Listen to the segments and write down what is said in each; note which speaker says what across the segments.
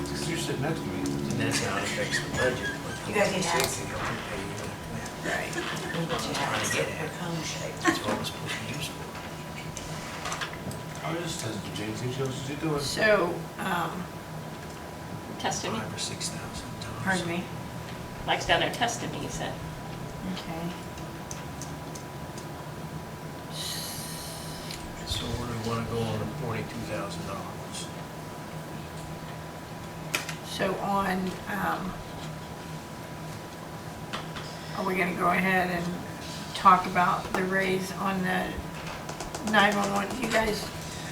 Speaker 1: That's me.
Speaker 2: And that's how it affects the budget.
Speaker 3: You guys need to ask.
Speaker 2: That's
Speaker 3: Right.
Speaker 2: Trying to get at it.
Speaker 3: it.
Speaker 2: what it's supposed to be used for.
Speaker 1: I was just testing James, see what else is he doing?
Speaker 4: So, um,
Speaker 5: Tested me,
Speaker 2: Five or six thousand dollars.
Speaker 4: pardon me?
Speaker 5: Mike's down there tested me, he said.
Speaker 4: Okay.
Speaker 2: So where do we wanna go on the forty-two thousand dollars?
Speaker 4: So on, um, are we gonna go ahead and talk about the raise on the nine-one-one? You guys,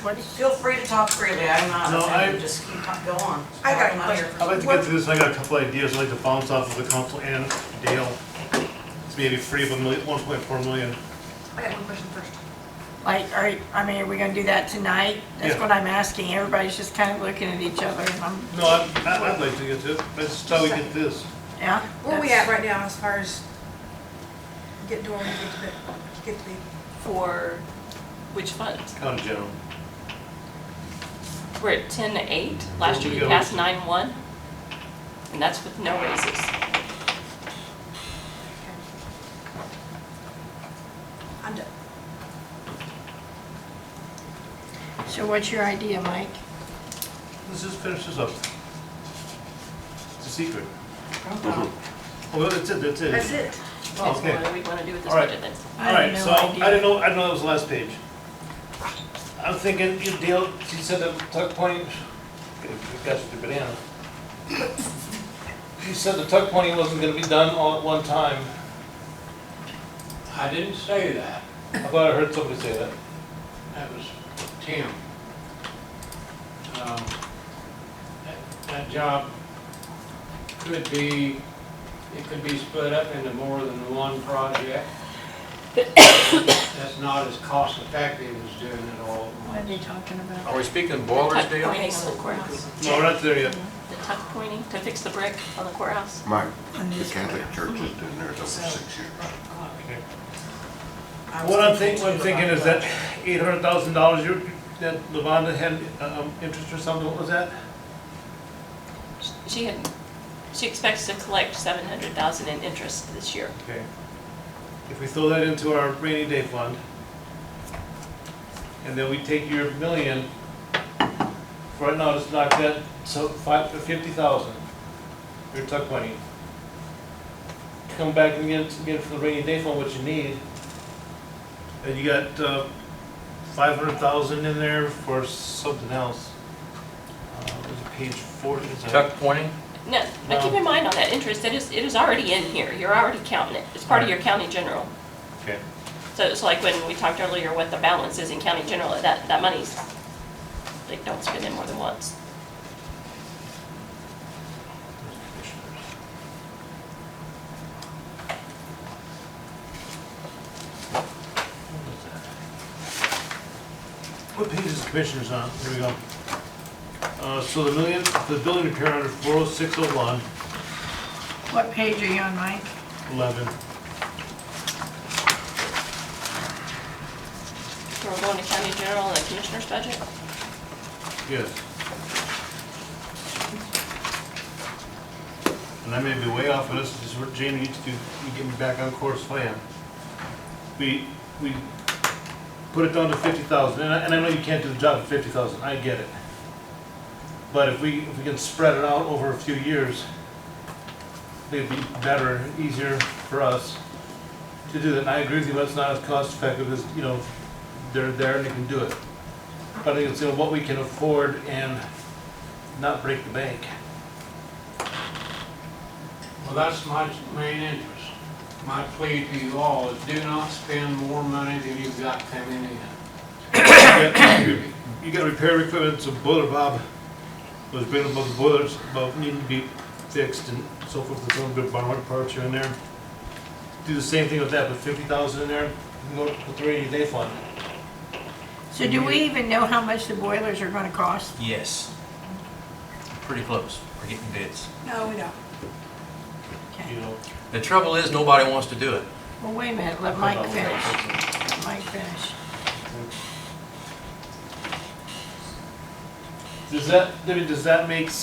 Speaker 4: what is?
Speaker 3: Feel free to talk freely, I'm not
Speaker 6: No,
Speaker 3: offended,
Speaker 6: I-
Speaker 3: just keep, talk- go on.
Speaker 7: I got a
Speaker 3: I'm here
Speaker 7: question.
Speaker 3: for-
Speaker 6: I'd like to get to this, I got a couple ideas, I'd like to bounce off of the council and Dale. It's maybe free of a million, one point four million.
Speaker 7: I got one question first.
Speaker 4: Like, are, I mean, are we gonna do that tonight? That's
Speaker 6: Yeah.
Speaker 4: what I'm asking. Everybody's just kind of looking at each other and I'm,
Speaker 6: No, I, I- I'd like to get to it, that's how we get this.
Speaker 4: yeah?
Speaker 7: Where we
Speaker 4: that's-
Speaker 7: at right now as far as getting to where we get to be, get to be?
Speaker 5: For which funds?
Speaker 6: County General.
Speaker 5: We're at ten to eight, last year
Speaker 6: we
Speaker 5: we
Speaker 6: go.
Speaker 5: passed nine one, and that's with no raises.
Speaker 6: Oh,
Speaker 7: I'm done.
Speaker 4: So what's your idea, Mike?
Speaker 6: Let's just finish this up. It's a secret.
Speaker 4: I
Speaker 6: Oh, well, that's it, that's it.
Speaker 7: That's it.
Speaker 6: Oh,
Speaker 5: So
Speaker 6: okay.
Speaker 5: What do we wanna do with this
Speaker 6: All right.
Speaker 5: budget then?
Speaker 6: All
Speaker 4: have
Speaker 6: right,
Speaker 4: no
Speaker 6: so I
Speaker 4: idea.
Speaker 6: didn't know, I didn't know that was the last page. I'm thinking, you Dale, she said that tuck point, got your banana. You said the tuck pointing wasn't gonna be done all at one time.
Speaker 8: I didn't say that.
Speaker 6: I thought I heard somebody say that.
Speaker 8: That was Tim. Um, That that job could be, it could be split up into more than one project. That's not as cost effective as doing it all at
Speaker 4: What are
Speaker 8: once.
Speaker 4: they talking about?
Speaker 2: Are we speaking
Speaker 5: Tuck
Speaker 2: ballers,
Speaker 5: pointing
Speaker 2: Dale?
Speaker 5: on the courthouse,
Speaker 6: No, we're not there yet.
Speaker 5: the tuck pointing to fix the brick on the courthouse.
Speaker 1: Mike, the Catholic Church has been there over six years.
Speaker 3: I was
Speaker 6: What I'm thinking, what
Speaker 3: too
Speaker 6: I'm thinking
Speaker 3: about
Speaker 6: is that eight hundred thousand dollars, you, that Levanda had, um, interest or something, what was that?
Speaker 5: She had, she expects to collect seven hundred thousand in interest this year.
Speaker 6: Okay. If we throw that into our rainy day fund, and then we take your million, for right now, just knock that, so five, fifty thousand, your tuck money. Come back and get, get for the rainy day fund what you need, and you got, uh, five hundred thousand in there for something else. Uh, it was page forty, is that-
Speaker 2: Tuck pointing?
Speaker 5: No, but keep
Speaker 6: No.
Speaker 5: in mind on that interest, it is, it is already in here, you're already counting it, it's part of your county general.
Speaker 6: Okay.
Speaker 5: So it's like when we talked earlier what the balance is in county general, that, that money's, they don't spend it more than once.
Speaker 6: What page is the commissioners on? Here we go. Uh, so the million, the building repair under four oh six oh one,
Speaker 4: What page are you on, Mike?
Speaker 6: eleven.
Speaker 5: So we're going to county general and the commissioner's budget?
Speaker 6: Yes. And I may be way off of this, this is where Jamie needs to, you get me back on course if I am. We, we put it down to fifty thousand, and I, and I know you can't do the job at fifty thousand, I get it. But if we, if we can spread it out over a few years, it'd be better, easier for us to do that. And I agree with you, but it's not as cost effective as, you know, they're there and they can do it. But it's, you know, what we can afford and not break the bank.
Speaker 8: Well, that's my main interest. My plea to you all is do not spend more money than you've got coming in.
Speaker 6: You got repair equipment, so boiler Bob was bringing about the boilers, about needing to be fixed and so forth, there's a little bit of borrowed parts here and there. Do the same thing with that, put fifty thousand in there, you can go to the rainy day fund.
Speaker 4: So do we even know how much the boilers are gonna cost?
Speaker 2: Yes. Pretty close, we're getting bids.
Speaker 7: No, we don't.
Speaker 6: you know.
Speaker 2: The trouble is, nobody wants to do it.
Speaker 4: Well, wait a minute, let Mike finish. Let Mike finish.
Speaker 6: Does that, I mean, does that make